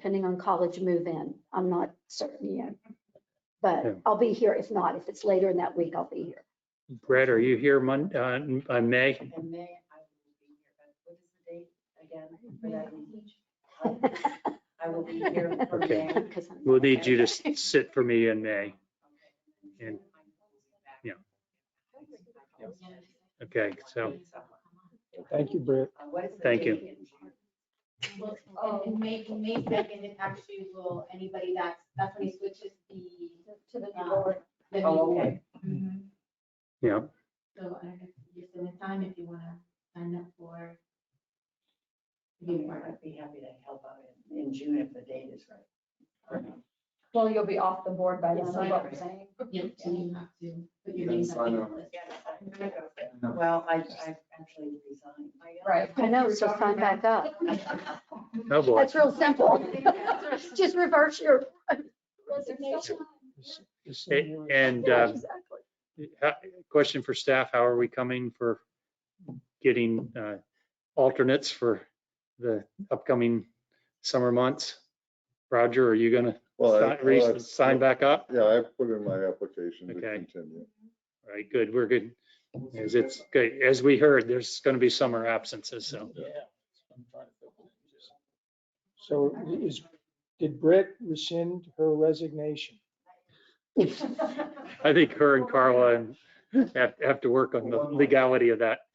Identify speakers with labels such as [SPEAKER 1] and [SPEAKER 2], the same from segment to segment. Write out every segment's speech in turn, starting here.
[SPEAKER 1] depending on college move-in. I'm not certain yet.
[SPEAKER 2] Yeah.
[SPEAKER 1] But I'll be here. If not, if it's later in that week, I'll be here.
[SPEAKER 2] Brett, are you here Mon, uh, on May?
[SPEAKER 3] In May, I will be here, but what is the date again for that meeting? I will be here for
[SPEAKER 2] Okay.
[SPEAKER 3] May. Okay.
[SPEAKER 1] Because I'm-
[SPEAKER 2] We'll need you to s- sit for me in May. And- yeah. Okay, so
[SPEAKER 4] Thank you, Brett.
[SPEAKER 3] Uh, What is the
[SPEAKER 2] Thank you.
[SPEAKER 3] date in June?
[SPEAKER 5] Well, and- and Oh, May, May second, it actually will, anybody that's, that's when he switches the. To the
[SPEAKER 1] lower.
[SPEAKER 5] The
[SPEAKER 3] Oh,
[SPEAKER 5] meeting.
[SPEAKER 3] okay.
[SPEAKER 5] Mhm.
[SPEAKER 2] Yeah.
[SPEAKER 5] So I guess just in the time, if you wanna sign up for. Be part of.
[SPEAKER 3] I'd be happy to help out in, in June if the date is right.
[SPEAKER 6] Well, you'll be off the board by then, is
[SPEAKER 5] Yeah,
[SPEAKER 6] what
[SPEAKER 3] right.
[SPEAKER 6] we're saying.
[SPEAKER 5] Yeah, so you have to put your
[SPEAKER 4] Then
[SPEAKER 5] name on
[SPEAKER 4] sign
[SPEAKER 5] the
[SPEAKER 4] up.
[SPEAKER 5] list.
[SPEAKER 3] Well, I, I actually resigned.
[SPEAKER 6] Right.
[SPEAKER 1] I know, so sign back up.
[SPEAKER 2] Oh, boy.
[SPEAKER 1] That's real simple. Just reverse your resignation.
[SPEAKER 2] A- And
[SPEAKER 1] Yeah,
[SPEAKER 2] uh,
[SPEAKER 1] exactly.
[SPEAKER 2] ha- question for staff, how are we coming for getting uh, alternates for the upcoming summer months? Roger, are you going
[SPEAKER 7] Well, I- well, I-
[SPEAKER 2] to sign back up?
[SPEAKER 7] Yeah, I put in my application to
[SPEAKER 2] Okay.
[SPEAKER 7] continue.
[SPEAKER 2] All right, good, we're good. As it's, good. as we heard, there's going to be summer absences, so.
[SPEAKER 4] So is, did Brett rescind her resignation?
[SPEAKER 2] I think her and Carla have, have to work on the legality of that.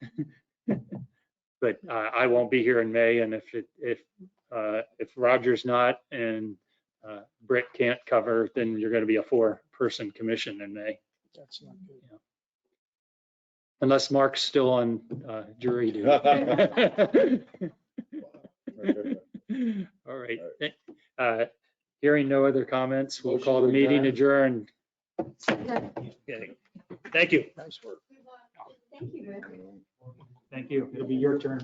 [SPEAKER 2] But uh, I won't be here in May and if it, if, uh, if Roger's not and uh, Britt can't cover, then you're going to be a four-person commission in May.
[SPEAKER 4] That's not good.
[SPEAKER 2] Unless Mark's still on uh, jury duty. All right. Uh, Hearing no other comments, we'll call the meeting adjourned. Okay. Thank you.
[SPEAKER 4] Nice work.
[SPEAKER 1] Thank you.
[SPEAKER 2] Thank you. It'll be your turn.